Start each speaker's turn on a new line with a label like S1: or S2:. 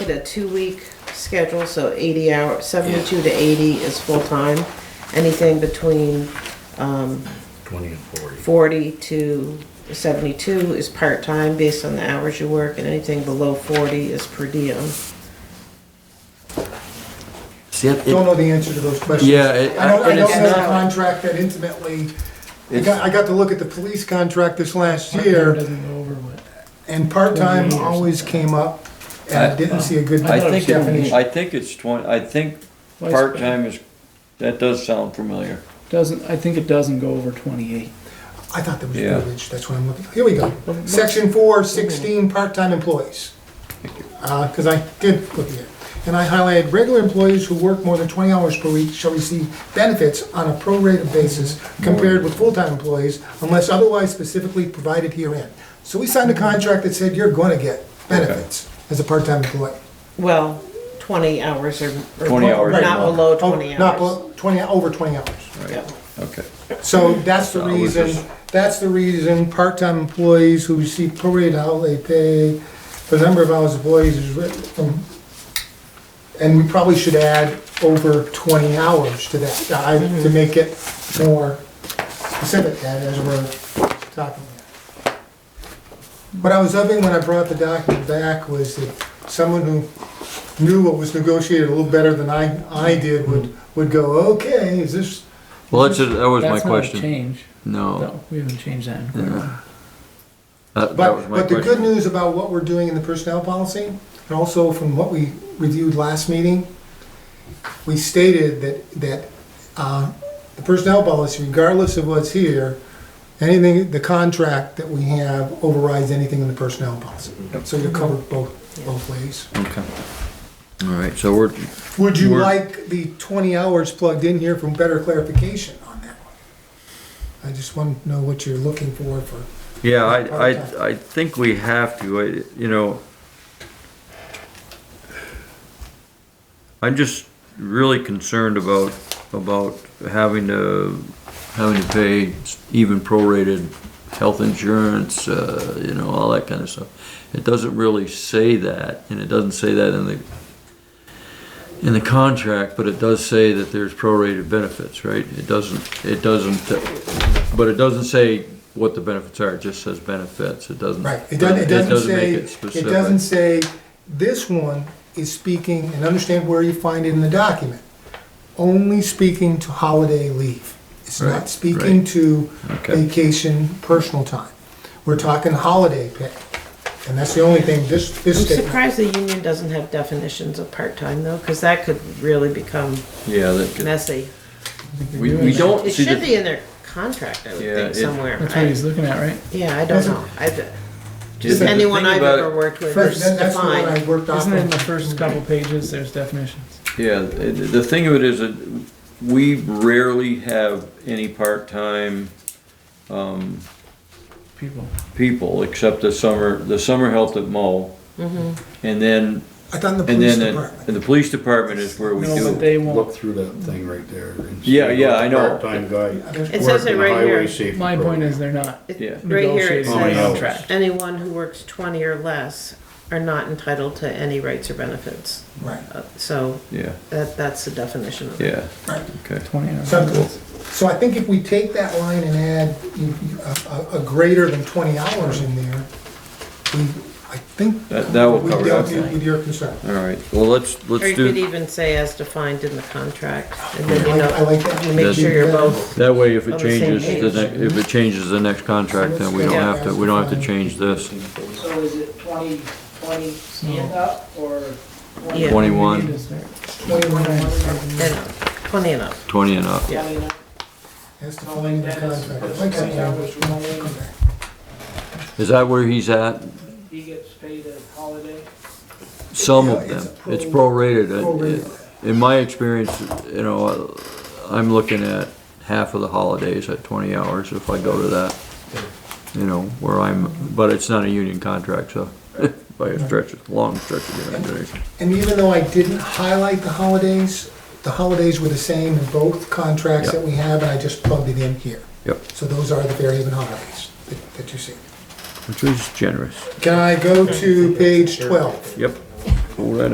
S1: a two-week schedule, so 80 hours, 72 to 80 is full-time. Anything between um,
S2: Twenty and forty.
S1: 40 to 72 is part-time based on the hours you work, and anything below 40 is per diem.
S2: See, it-
S3: Don't
S2: it-
S3: know the answer to those questions.
S2: Yeah, it-
S3: I don't, I
S2: and
S3: don't
S2: it's
S3: know the
S1: not-
S3: contract that intimately. I
S2: It's-
S3: got, I got to look at the police contract this last year,
S4: Doesn't go over what-
S3: and part-time always came up, and I didn't see a good
S4: I
S2: I think, it-
S3: definition.
S2: I think it's twenty, I think
S4: Lifespan.
S2: part-time is, that does sound familiar.
S4: Doesn't, I think it doesn't go over twenty-eight.
S3: I thought that was
S2: Yeah.
S3: privilege, that's what I'm looking, here we go. Section four, sixteen, part-time employees. Uh 'cause cause I did look at it. And I highlighted, regular employees who work more than twenty hours per week shall receive benefits on a prorated basis compared with full-time employees unless otherwise specifically provided herein. So we signed a contract that said you're gonna get benefits as a part-time employee.
S1: Well, 20 hours or. or
S2: 20 hours
S3: a
S1: Not
S2: month.
S1: below
S3: Oh,
S1: 20
S3: Not,
S1: hours.
S3: below- twenty, over twenty hours.
S1: Yeah.
S2: Okay.
S3: So that's the
S2: I was
S3: reason,
S2: just-
S3: that's the reason part-time employees who receive prorated hourly pay for the number of hours employees is written from, and we probably should add over twenty hours to that, uh, I- to
S2: Mm-hmm.
S3: make it more specific, Ed, as we're talking here. What I was hoping when I brought the document back was that someone who knew what was negotiated a little better than I, I did would,
S2: Mm-hmm.
S3: would go, okay, is this,
S5: Well, that's, that was my
S4: That's not a
S5: question.
S4: change.
S5: No.
S4: No, we haven't changed that. in quite a
S5: Yeah.
S4: while.
S5: That, that was
S3: But,
S5: my
S3: but the good
S5: question.
S3: news about what we're doing in the personnel policy, and also from what we reviewed last meeting, we stated that, that, uh, the personnel policy, regardless of what's here, anything, the contract that we have overrides anything in the personnel policy. So you're covered both, both ways.
S5: Okay. All right, so we're,
S3: Would you
S5: We're-
S3: like the twenty hours plugged in here for better clarification on that one? I just want to know what you're looking for, for,
S5: yeah, I, I, I think we have to, I- you know. I'm just really concerned about, about having to, having to pay even prorated health insurance, uh, you know, all that kind of stuff. It doesn't really say that, and it doesn't say that in the, in the contract, but it does say that there's prorated benefits, right? It doesn't, it doesn't, uh, but it doesn't say what the benefits are, it just says benefits, it doesn't.
S3: Right, it doesn't, it doesn't say,
S5: make
S3: it
S5: specific.
S3: doesn't say, this one is speaking, and understand where you find it in the document, only speaking to holiday leave. It's not
S5: Right,
S3: speaking
S5: right.
S3: to
S5: Okay.
S3: vacation, personal time. We're talking holiday pay, and that's the only thing this,
S1: I'm
S3: this statement.
S1: surprised the union doesn't have definitions of part-time though, because that could really become
S5: Yeah, that could,
S1: messy.
S5: we, we don't
S1: It
S5: see
S1: should be
S5: the,
S1: in their contract, I would
S5: Yeah,
S1: think,
S5: it-
S1: somewhere.
S4: That's what
S1: I-
S4: he's looking at, right?
S1: Yeah, I don't know. I, just
S5: the thing
S1: anyone I've
S5: about-
S1: ever worked with
S3: First,
S1: is
S3: that- That's the one I
S1: defined.
S3: worked off
S4: Isn't it in
S3: of.
S4: the first couple pages, there's definitions?
S5: yeah, the the thing of it is that we rarely have any part-time, um,
S4: People,
S5: people, except the summer, the summer help at Mo.
S1: Mm-hmm.
S5: And then,
S3: I thought in the
S5: and
S3: police
S5: then, the-
S3: department.
S5: and the police department is where we
S4: no,
S5: do
S4: but
S5: it.
S4: they won't.
S6: Look through that thing right there. and
S5: Yeah,
S6: see
S5: yeah,
S6: what
S5: I know.
S6: Part-time guy.
S3: There's-
S1: It says
S6: worked
S1: it
S6: in the
S1: right
S6: highway
S1: here.
S6: safety
S4: My point
S6: program.
S4: is they're not
S1: It-
S5: Yeah.
S1: Right here it
S4: negotiating
S5: Oh,
S6: Only hours.
S4: a
S1: says,
S4: contract.
S1: anyone who works twenty or less are not entitled to any rights or benefits.
S3: Right,
S1: Uh, So
S5: Yeah,
S1: that, that's the definition of it.
S5: yeah,
S3: right.
S5: okay.
S4: Twenty hours.
S3: So, so I think if we take that line and add you- you- a, a- a greater than twenty hours in there, we, I think.
S5: That- that will
S3: we
S5: cover
S3: dealt
S5: everything.
S3: With your concern.
S5: All right, well, let's,
S1: Or you
S5: let's
S1: could
S5: do,
S1: even say as defined in the contract, and
S3: I
S1: then you
S3: like, I
S1: know,
S3: like that.
S1: you make sure you're both,
S5: that way if it
S1: On the same
S5: changes,
S1: page.
S5: the ne- if it changes the next contract, then we don't
S1: Yeah.
S5: have to, we don't have to change this.
S7: So is it twenty, twenty stand up or
S1: Mm. Yeah.
S7: twenty?
S4: We need
S5: Twenty-one,
S4: to start-
S3: Twenty-one hours.
S1: and up, twenty and up.
S5: twenty and up.
S1: Yeah.
S3: That's the full length of the contract. I like that. Come back.
S5: Is that where he's at?
S7: He gets paid a holiday?
S5: Some
S3: Yeah,
S5: of
S3: it's
S5: them,
S3: pro-
S5: it's prorated. Uh,
S3: Prorated.
S5: In my experience, you know, I'm looking at half of the holidays at twenty hours if I go to that. You know, where I'm, but it's not a union contract, so by a stretch, a long stretch of the imagination.
S3: And even though I didn't highlight the holidays, the holidays were the same in both contracts
S5: Yeah.
S3: that we have, and I just plugged it in here.
S5: Yep,
S3: So those are the variable holidays that, that you see.
S5: which is generous.
S3: Can I go to page twelve?
S5: Yep. Hold that